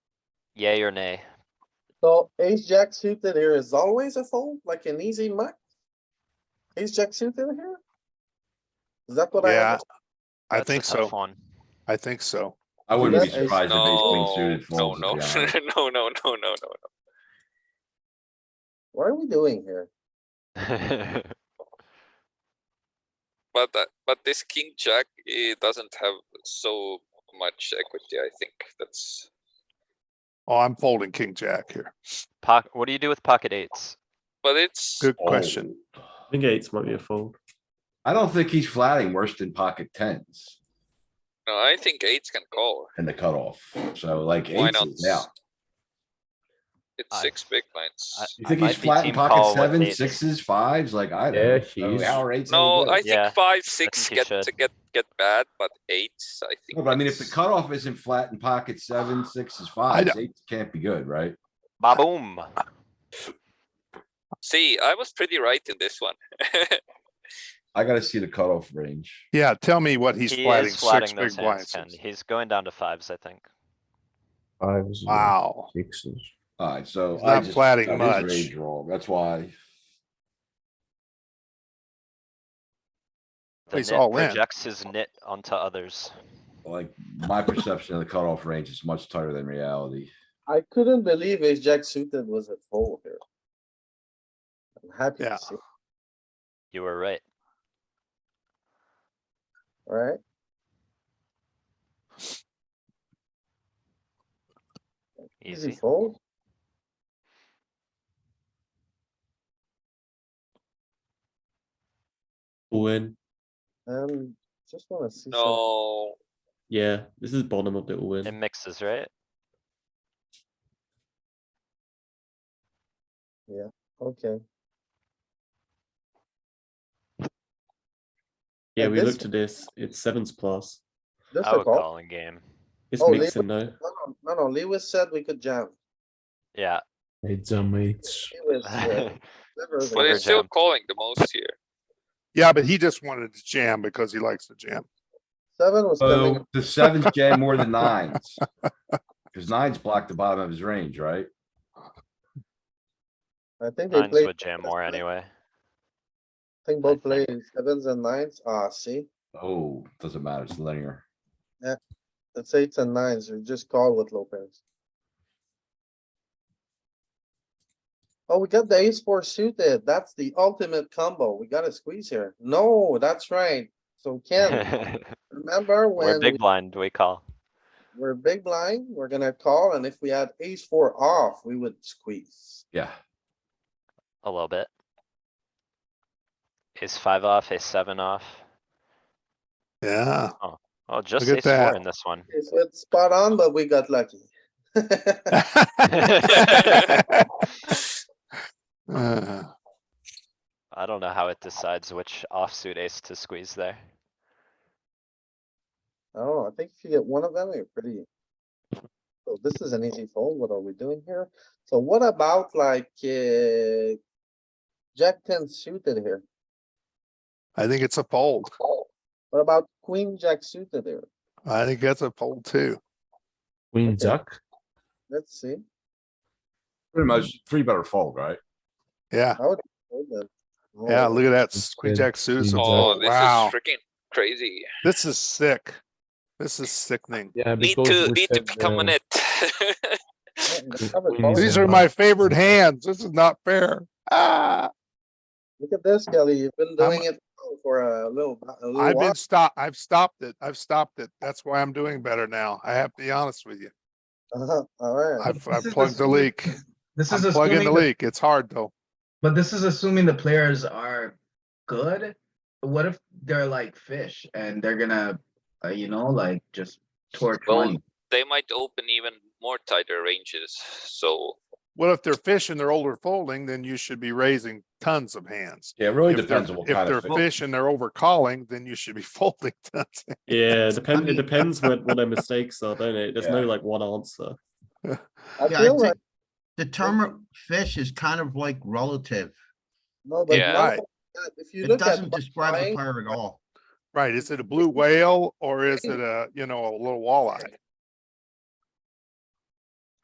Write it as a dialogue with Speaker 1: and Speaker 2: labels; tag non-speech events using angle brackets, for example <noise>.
Speaker 1: Yay or nay?
Speaker 2: So ace jack suited here is always a fold, like an easy muck? Ace jack suited here? Is that what I?
Speaker 3: Yeah,
Speaker 2: understand?
Speaker 3: I
Speaker 1: That's a
Speaker 3: think
Speaker 1: tough
Speaker 3: so.
Speaker 1: One. <laughs>
Speaker 3: I think so.
Speaker 4: I wouldn't be
Speaker 2: Yeah, it's-
Speaker 4: surprised if ace queen
Speaker 5: No,
Speaker 4: suited
Speaker 5: no,
Speaker 4: folds.
Speaker 5: no, no,
Speaker 4: to be honest.
Speaker 5: <laughs> no, no, no, no, no.
Speaker 2: What are we doing here?
Speaker 5: But that, but this king jack, it doesn't have so much equity, I think. That's,
Speaker 3: Oh, I'm folding king jack here.
Speaker 1: Pocket, what do you do with pocket eights?
Speaker 5: but it's,
Speaker 3: Good
Speaker 4: Oh.
Speaker 3: question.
Speaker 6: I think eights might be a fold.
Speaker 4: I don't think he's flatting worse than pocket tens
Speaker 5: no, I think eights can call.
Speaker 4: in the cutoff. So like
Speaker 5: Why
Speaker 4: eights
Speaker 5: not?
Speaker 4: is out.
Speaker 5: It's
Speaker 1: I-
Speaker 5: six big blinds.
Speaker 1: I-
Speaker 4: You
Speaker 1: I
Speaker 4: think
Speaker 1: might
Speaker 4: he's
Speaker 1: be
Speaker 4: flat in
Speaker 1: team call
Speaker 4: pocket
Speaker 1: with
Speaker 4: sevens,
Speaker 1: eights.
Speaker 4: sixes, fives, like I
Speaker 7: Yeah,
Speaker 4: don't. know.
Speaker 7: he's-
Speaker 4: So How are eights? any
Speaker 5: No,
Speaker 4: good?
Speaker 5: I think
Speaker 1: Yeah,
Speaker 5: five, six
Speaker 1: think you
Speaker 5: get to
Speaker 1: should.
Speaker 5: get, get bad, but eights, I think.
Speaker 4: No, But I mean, if the
Speaker 5: that's-
Speaker 4: cutoff isn't flat in pocket seven, sixes, fives, eights can't be good, right?
Speaker 1: Ba-boom.
Speaker 5: See, I was pretty right in this one. <laughs>
Speaker 4: I gotta see the cutoff range.
Speaker 3: Yeah, tell me what he's
Speaker 1: He
Speaker 3: flatting
Speaker 1: is
Speaker 3: six
Speaker 1: flatting
Speaker 3: big
Speaker 1: those hands,
Speaker 3: blinds.
Speaker 1: Ken. He's going down to fives, I think.
Speaker 7: Fives. and
Speaker 3: Wow.
Speaker 7: Sixes.
Speaker 4: Alright, so.
Speaker 3: He's
Speaker 4: I
Speaker 3: not
Speaker 4: just-
Speaker 3: flatting
Speaker 4: that is
Speaker 3: much.
Speaker 4: range wrong, That's why.
Speaker 1: The
Speaker 3: He's
Speaker 1: nit
Speaker 3: all in.
Speaker 1: projects his nit onto others.
Speaker 4: Like, my perception of the cutoff range is much tighter than reality.
Speaker 2: I couldn't believe ace jack suited was a fold here. I'm happy
Speaker 3: Yeah.
Speaker 2: to see,
Speaker 1: You were right.
Speaker 2: right? Easy
Speaker 1: Easy.
Speaker 2: fold.
Speaker 6: All in.
Speaker 2: Um, just wanna see. some-
Speaker 5: No,
Speaker 6: Yeah, this is bottom of the all
Speaker 1: It
Speaker 6: in.
Speaker 1: mixes, right?
Speaker 2: Okay,
Speaker 6: Yeah, we
Speaker 2: this-
Speaker 6: looked at this. It's sevens plus.
Speaker 2: just
Speaker 1: I
Speaker 2: a
Speaker 1: would
Speaker 2: call.
Speaker 1: call in game.
Speaker 6: It's
Speaker 2: Oh, they-
Speaker 6: mixing though.
Speaker 2: No, no, no, no, Lewis said we could jam.
Speaker 1: Yeah.
Speaker 7: Eights and eights.
Speaker 2: Lewis,
Speaker 1: <laughs>
Speaker 2: uh,
Speaker 1: But
Speaker 2: never
Speaker 5: but
Speaker 2: even-
Speaker 1: Finger
Speaker 5: it's still
Speaker 1: jam.
Speaker 5: calling the most here.
Speaker 3: Yeah, but he just wanted to jam because he likes to jam.
Speaker 2: Seven was coming.
Speaker 4: So the sevens jam more than nines. Cause nines block the bottom of his range, right?
Speaker 2: I think they
Speaker 1: Nines
Speaker 2: played,
Speaker 1: would jam more
Speaker 2: <laughs>
Speaker 1: anyway.
Speaker 2: I think both played sevens and nines. Ah, see,
Speaker 4: Oh, doesn't matter, it's linear.
Speaker 2: it's eights and nines. You just call with low pairs. Oh, we got the ace four suited. That's the ultimate combo. We gotta squeeze here. No, that's right. So Ken,
Speaker 1: <laughs>
Speaker 2: remember
Speaker 1: We're
Speaker 2: when
Speaker 1: big
Speaker 2: we-
Speaker 1: blind, we call.
Speaker 2: we're big blind, we're gonna call and if we had ace four off, we would squeeze.
Speaker 4: Yeah,
Speaker 1: A little bit. Ace five off, ace seven off. <laughs>
Speaker 3: Yeah, <laughs>
Speaker 1: Oh, just
Speaker 3: at
Speaker 1: ace four
Speaker 3: that.
Speaker 1: in this one.
Speaker 2: It's it's spot on, but we got lucky. <laughs>
Speaker 3: Uh,
Speaker 1: I don't know how it decides which offsuit ace to squeeze there.
Speaker 2: Oh, I think if you get one of them, you're pretty. So this is an easy fold. What are we doing here? So what about like, uh, Jack ten suited here?
Speaker 3: I think it's a fold.
Speaker 4: Oh,
Speaker 5: Oh,
Speaker 2: What about queen jack suited here?
Speaker 3: I think that's a fold too.
Speaker 7: Queen jack.
Speaker 2: Let's see.
Speaker 4: pretty much three better fold, right?
Speaker 3: Yeah,
Speaker 2: Hold on.
Speaker 3: yeah,
Speaker 2: Oh,
Speaker 3: look at that.
Speaker 7: That's
Speaker 3: Queen
Speaker 7: good.
Speaker 3: jack suited. is a
Speaker 7: Queen
Speaker 5: Oh,
Speaker 3: fold.
Speaker 5: this is
Speaker 3: Wow,
Speaker 5: freaking crazy.
Speaker 3: this is sick. This is sickening.
Speaker 7: Yeah,
Speaker 5: Need
Speaker 7: because
Speaker 5: to,
Speaker 7: we
Speaker 5: need to
Speaker 7: said,
Speaker 5: become
Speaker 7: uh,
Speaker 5: on it.
Speaker 2: yeah, we have it
Speaker 7: Queen
Speaker 2: all.
Speaker 7: is
Speaker 3: These
Speaker 7: a
Speaker 3: are
Speaker 7: lot.
Speaker 3: my favorite hands. This is not fair. Ah.
Speaker 2: Look at this, Kelly. You've been
Speaker 3: I'm-
Speaker 2: doing it for a little, a little
Speaker 3: I've
Speaker 2: while.
Speaker 3: been stop, I've stopped it. I've stopped it. That's why I'm doing better now. I have to be honest with you.
Speaker 2: <laughs> Uh-huh, Alright,
Speaker 3: I've, I've plugged the leak.
Speaker 8: This
Speaker 3: I'm
Speaker 8: is
Speaker 3: plugging the
Speaker 8: assuming, the-
Speaker 3: leak. It's hard though.
Speaker 8: but this is assuming the players are good. What if they're like fish and they're gonna, uh, you know, like just torch
Speaker 5: Well,
Speaker 8: money?
Speaker 5: <laughs> They might open even more tighter ranges, so
Speaker 3: Well, if they're fishing, they're older folding, then you should be raising tons of hands.
Speaker 4: Yeah, it really
Speaker 3: If they're-
Speaker 4: depends on what
Speaker 3: If
Speaker 4: kind
Speaker 3: they're
Speaker 4: of. fish.
Speaker 3: fishing, they're over calling, then you should be <laughs> folding tons.
Speaker 2: <laughs>
Speaker 6: Yeah, it depends. It
Speaker 8: mean-
Speaker 6: depends what what their mistakes are, don't it? There's no
Speaker 4: Yeah.
Speaker 6: like one answer.
Speaker 2: I
Speaker 9: Yeah, I
Speaker 2: feel like,
Speaker 9: think the term fish is kind of like relative.
Speaker 2: no, but
Speaker 5: Yeah.
Speaker 2: now
Speaker 3: Right.
Speaker 2: that- if you
Speaker 9: It
Speaker 2: look at.
Speaker 9: doesn't
Speaker 2: bu-
Speaker 9: describe a
Speaker 2: buying-
Speaker 9: player at all.
Speaker 3: Right? Is it a blue whale or is it a, you know, a little walleye?